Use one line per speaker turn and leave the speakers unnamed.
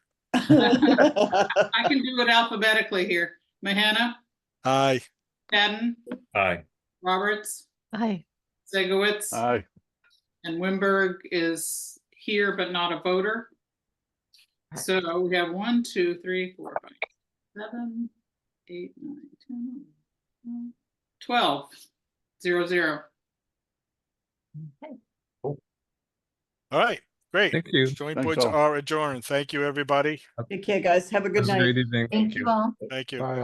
I can do it alphabetically here. Mahana,
Aye.
Patton,
Aye.
Roberts,
Aye.
Segowitz,
Aye.
and Wimberg is here but not a voter. So we have one, two, three, four, five, seven, eight, nine, ten, eleven, twelve, zero, zero.
All right, great.
Thank you.
Joint
Thanks
boards
all.
are adjourned. Thank you, everybody.
Take care, guys. Have a good
Have
night.
a Great evening.
Thank you all.
Thank you.
Bye.